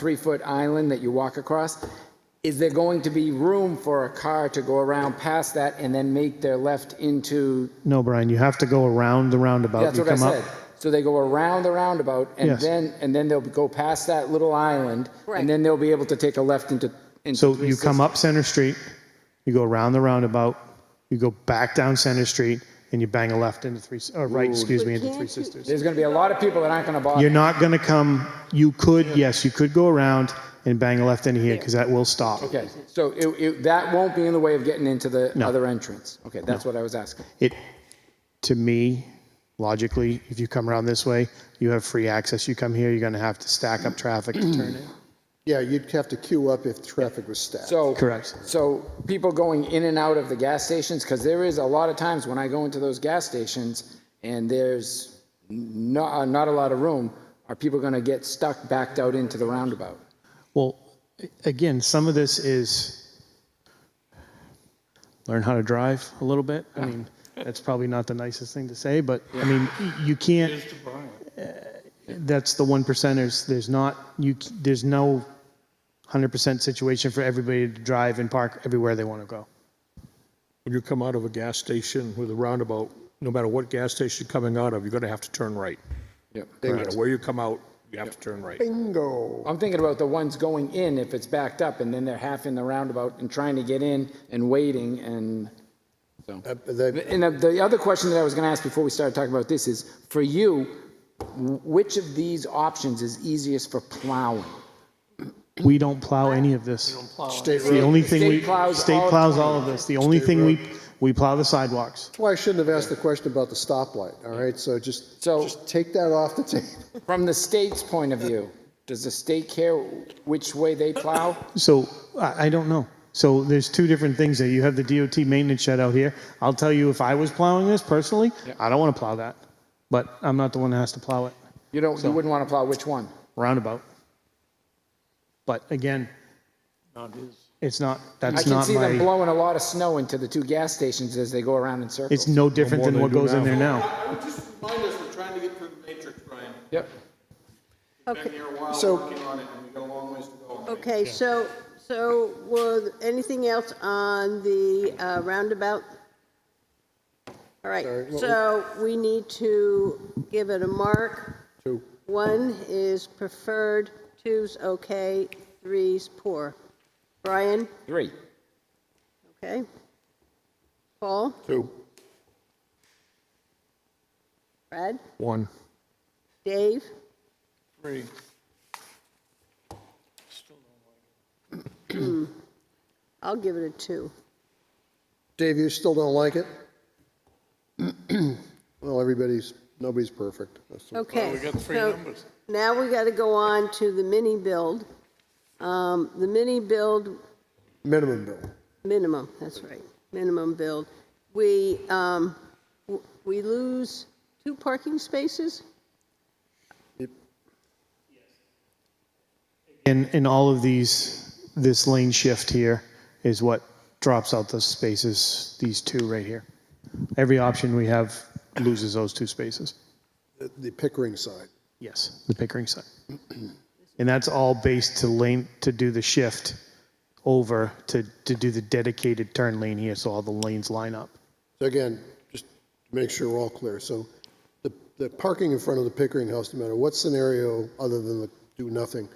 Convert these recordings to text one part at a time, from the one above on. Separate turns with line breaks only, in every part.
three-foot island that you walk across, is there going to be room for a car to go around past that and then make their left into,
No, Brian, you have to go around the roundabout.
that's
you
what I
come up.
said. So they go around the roundabout and
Yes.
then, and then they'll go past that little island.
Correct.
And then they'll be able to take a left into, into
So you come up Center Street, you go around the roundabout, you go back down Center Street, and you bang a left into three, or right, excuse me, into Three Sisters.
There's going to be a lot of people that aren't going to bother.
You're not going to come, you could, yes, you could go around and bang a left into here because that will stop.
Okay, so it, it, that won't be in the way of getting into the other entrance? Okay, that's what I was asking.
It, to me, logically, if you come around this way, you have free access. You come here, you're going to have to stack up traffic to turn in.
Yeah, you'd have to queue up if traffic was stacked.
So.
Correct.
So people going in and out of the gas stations, because there is a lot of times when I go into those gas stations and there's not, not a lot of room, are people going to get stuck backed out into the roundabout?
Well, a- again, some of this is learn how to drive a little bit. I mean, that's probably not the nicest thing to say, but I mean, y- you can't. Uh, That's the one percenters. There's not you. c- There's no hundred percent situation for everybody to drive and park everywhere they want to go.
When you come out of a gas station with a roundabout, no matter what gas station you're coming out of, you're going to have to turn right.
Yep.
No matter where you come out, you have to turn right.
Bingo.
I'm thinking about the ones going in if it's backed up and then they're half in the roundabout and trying to get in and waiting and
Uh, they-
And the- the other question that I was going to ask before we started talking about this is, for you, wh- which of these options is easiest for plowing?
We don't plow any of this.
State
The
road.
only thing
State
we
plows
state
all
plows
20.
all of this. The only thing we we plow the sidewalks.
That's why I shouldn't have asked the question about the stoplight, all right? So just,
So-
just take that off the table.
From the state's point of view, does the state care which way they plow?
So I, I don't know. So there's two different things there. You have the DOT maintenance shed out here. I'll tell you, if I was plowing this personally, I don't want to plow that, but I'm not the one that has to plow it.
You don't, you wouldn't want to plow which one?
Roundabout. But again, it's not.
I
That's
can
not
see them
my.
blowing a lot of snow into the two gas stations as they go around in
It's
circles.
no different
more
than
they
what
do
goes in
now.
there now.
Just remind us, we're trying to get through the matrix, Brian.
Yep.
Been
Okay,
here a while,
So-
working on it, and we've got a long ways to go.
okay, so, so was anything else on the uh, roundabout? All right, so we need to give it a mark.
Two.
One is preferred, two's okay, three's poor. Brian,
Three.
okay? Paul,
Two.
Brad,
One.
Dave,
Three.
Hmm. I'll give it a two.
Dave, you still don't like it? Well, everybody's, nobody's perfect. That's the-
Okay. We got three numbers. Now we got to go on to the mini build. Um, The mini build
Minimum bill.
Minimum, that's right, minimum build. We, um, w- we lose two parking spaces?
And in all of these, this lane shift here is what drops out those spaces. These two right here. Every option we have loses those two spaces.
The- The Pickering side.
Yes, the Pickering side. And that's all based to lane, to do the shift over to, to do the dedicated turn lane here, so all the lanes line up.
So again, just to make sure we're all clear, so the, the parking in front of the Pickering House, no matter what scenario, other than the do nothing,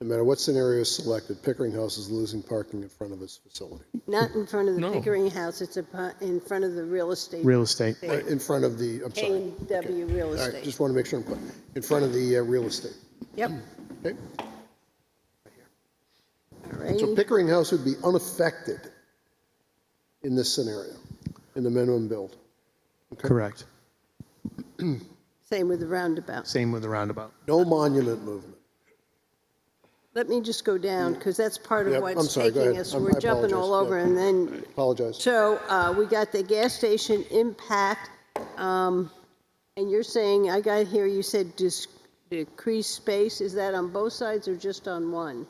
no matter what scenario is selected, Pickering House is losing parking in front of its facility,
Not in front of the Pickering House, it's upon- in front of the real estate,
Real estate,
Right, in front of the, I'm sorry.
K and W Real
All right,
Estate.
just want to make sure I'm clear, in front of the uh, real estate,
Yep,
okay?
all right.
So Pickering House would be unaffected in this scenario, in the minimum build.
correct.
Same with the roundabout.
Same with the roundabout.
No monument movement.
Let me just go down, because that's part
Yep,
of
I'm
what's
sorry, go
taking
ahead.
us.
I'm-
We're
I
jumping all
apologize,
over,
yeah.
and then
Apologize.
So uh, we got the gas station impact, um, and you're saying, I got here, you said dis- decrease space. Is that on both sides or just on one?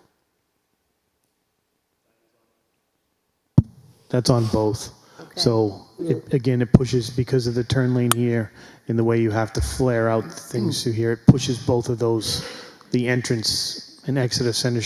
That's on both.
Okay.
So, it- again, it pushes, because of the turn lane here and the way you have to flare out things through here, it pushes both of those, the entrance and exit of Center